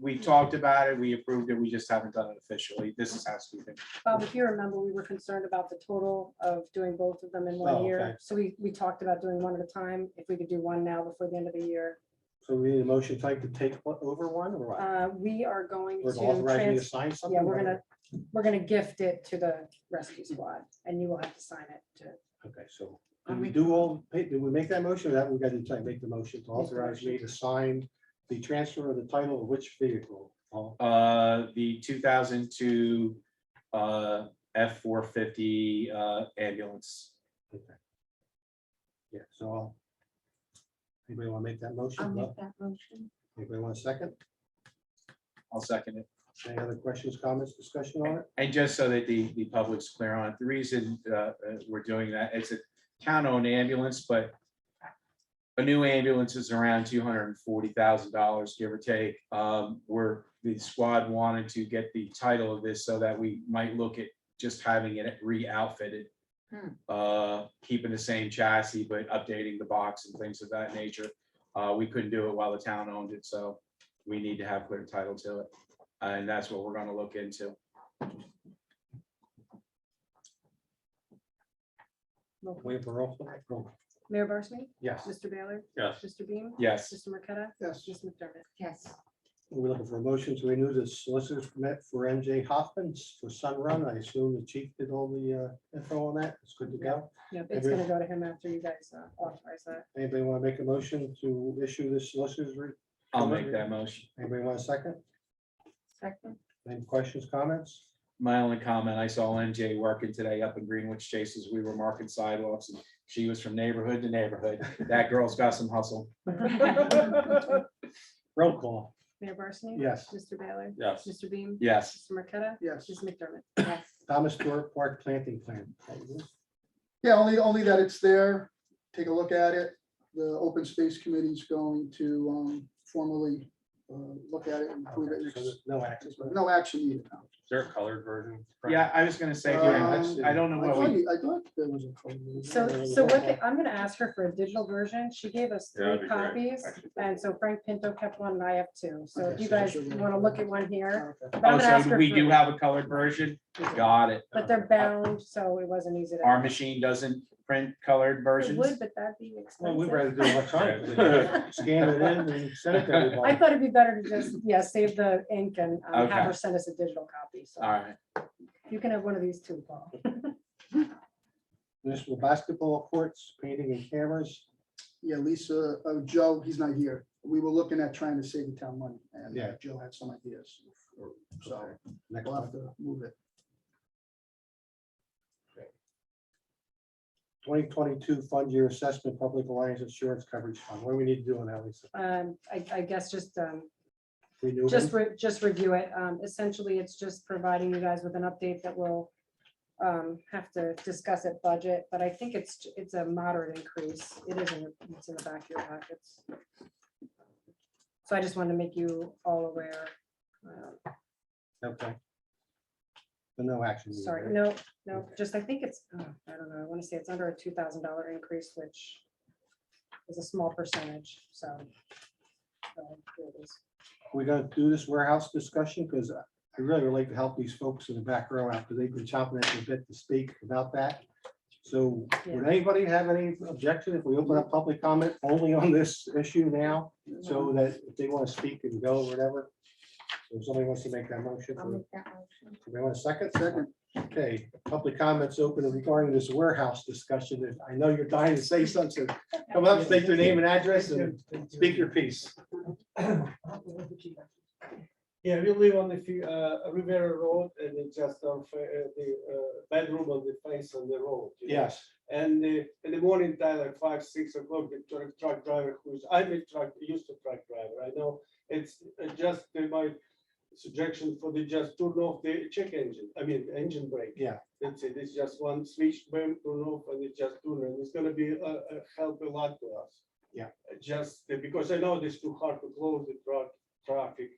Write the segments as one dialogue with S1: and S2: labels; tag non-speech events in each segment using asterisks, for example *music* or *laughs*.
S1: we talked about it, we approved it, we just haven't done it officially. This is how stupid.
S2: Bob, if you remember, we were concerned about the total of doing both of them in
S3: Oh,
S2: one
S3: okay.
S2: year. So we, we talked about doing one at a time, if we could do one now before the end of the year.
S3: So we need a motion type to take o- over one or what?
S2: Uh, we are going
S3: We're
S2: to.
S3: authorizing you
S2: trans-
S3: to sign something?
S2: Yeah, we're gonna, we're gonna gift it to the rescue squad and you will have to sign it to.
S3: Okay, so did we do all, hey, did we make that motion? or That we got to try and make the motion
S2: Make
S3: to
S2: the
S3: authorize me
S2: motion.
S3: to sign the transfer of the title of which vehicle? Paul?
S1: Uh, the two thousand two, uh, F four fifty, uh, ambulance.
S3: Okay. Yeah, so I'll. Anybody want to make that motion? No?
S4: that motion.
S3: Anybody want a second?
S1: I'll second it.
S3: Any other questions, comments, discussion on it?
S1: And just so that the, the public's clear on it, the reason, uh, uh, we're doing that, it's a town-owned ambulance, but a new ambulance is around two hundred and forty thousand dollars, give or take. Um, where the squad wanted to get the title of this so that we might look at just having it re-outfitted.
S4: Hmm.
S1: Uh, keeping the same chassis, but updating the box and things of that nature. Uh, we couldn't do it while the town owned it, so we need to have clear title to it. And that's what we're gonna look into.
S2: roll call.
S3: Wait for roll call. Roll.
S2: Mayor Barsney?
S3: Yes.
S2: Mr. Baylor?
S3: Yes.
S2: Mr. Beam?
S1: Yes.
S2: Mr. Marqueta?
S3: Yes.
S2: Ms. McDermott?
S4: Yes,
S3: We're looking for a motion to renew the solicitor's permit for MJ Hoffman's for Sunrun. I assume the chief did all the uh, info on that. It's good to go.
S2: Yep, it's
S3: Agree.
S2: gonna go to him after you guys uh, authorize that.
S3: Anybody want to make a motion to issue this solicitor's? re-
S1: I'll make that motion.
S3: Anybody want a second?
S4: second,
S3: Any questions, comments?
S1: My only comment, I saw MJ working today up in Greenwich Chases. We were marking sidewalks and she was from neighborhood to neighborhood. That girl's got some hustle.
S3: Roll call.
S2: *laughs* Mayor Barsney?
S3: Yes.
S2: Mr. Baylor?
S1: Yes.
S2: Mr. Beam?
S1: Yes.
S2: Mr. Marqueta?
S5: Yes.
S2: Ms. McDermott?
S4: yes,
S3: Thomas Stewart Park Planting Plan.
S5: Yeah, only, only that it's there. Take a look at it. The Open Space Committee's going to um, formally uh, look at it and approve it.
S3: Okay, so there's No action.
S5: No action needed. now.
S6: there a colored version? Frank?
S1: Yeah, I was gonna say,
S2: Uh,
S5: Um,
S1: I don't know
S5: I
S1: what
S5: thought
S1: we,
S5: you- I thought there was a. code.
S2: So, so what, they- I'm gonna ask her for a digital version. She gave us
S6: Yeah, that'd
S2: three
S6: be great,
S2: copies,
S6: actually.
S2: and so Frank Pinto kept one and I have two. So if
S5: Okay,
S2: you
S5: so
S2: guys
S5: she'll get
S2: wanna
S5: one.
S2: look at one here.
S5: Okay.
S2: but I'm
S1: oh,
S2: gonna ask
S1: so
S2: her
S1: we
S2: for-
S1: do have a colored version? Got it.
S2: But they're bound, so it wasn't easy to.
S1: Our machine doesn't print colored
S2: It
S1: versions?
S2: would, but that'd be
S3: Well, we'd
S2: expensive.
S3: rather do it electronically. Scan it in and send it to
S2: I
S3: everybody.
S2: thought it'd be better to just, yeah, save the ink and um,
S1: Okay.
S2: have her send us a digital copy.
S1: All
S2: So
S1: right.
S2: you can have one of these too, Paul.
S3: Municipal basketball courts, painting and cameras.
S5: Yeah, Lisa, oh, Joe, he's not here. We were looking at trying to save the town money and
S3: Yeah.
S5: Joe had some ideas. So
S3: So next
S5: we'll
S3: one,
S5: have to move it.
S3: twenty twenty-two fund year assessment, public alliance insurance coverage fund. What do we need to do on that, Lisa?
S2: Um, I, I guess just, um,
S3: Renew
S2: Just,
S3: them?
S2: re- just review it. Um, Essentially, it's just providing you guys with an update that will um, have to discuss at budget, but I think it's, it's a moderate increase. It is in, your- it's in the back of your pockets. So I just wanted to make you all aware. Uh,
S3: Okay. But no action. needed,
S2: Sorry,
S3: right?
S2: no, no, just I think it's, oh, I don't know, I want to say it's under a two thousand dollar increase, which is a small percentage, so. uh, here it is.
S3: We're gonna do this warehouse discussion because I really would like to help these folks in the back row after they've been chopping at the bit to speak about that. So would anybody have any objection if we open up public comment only on this issue now? So that if they want to speak and go, whatever. If somebody wants to make that motion,
S4: I'll
S3: do
S4: make that motion.
S3: they want a second? Second. Okay, public comments open regarding this warehouse discussion. If- I know you're dying to say something. Come up, state your name and address and speak your piece.
S7: Yeah, we live on the few, uh, Rivera Road and it's just on fa- uh, the uh, bedroom on the face on the road. you know.
S3: Yes.
S7: And uh, in the morning time, like five, six o'clock, the truck, truck driver who's, I'm a truck, used to truck driver, I know. It's uh, just uh, my suggestion for the just turn off the check engine, I mean, engine brake.
S3: Yeah.
S7: That's it, it's just one switch, boom, turn off and it just turn and it's gonna be, uh, uh, help a lot to us.
S3: Yeah.
S7: Uh, Just uh, because I know it's too hard to close the truck, traffic.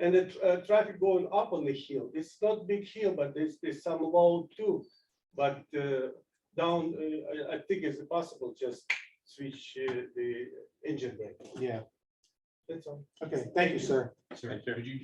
S7: And the tr- uh, traffic going up on the hill, it's not big hill, but there's, there's some low too. But uh, down, uh, I, I think it's possible, just switch uh, the engine brake,
S3: Yeah,
S7: that's all.
S3: okay, thank you, sir.
S6: Thank you.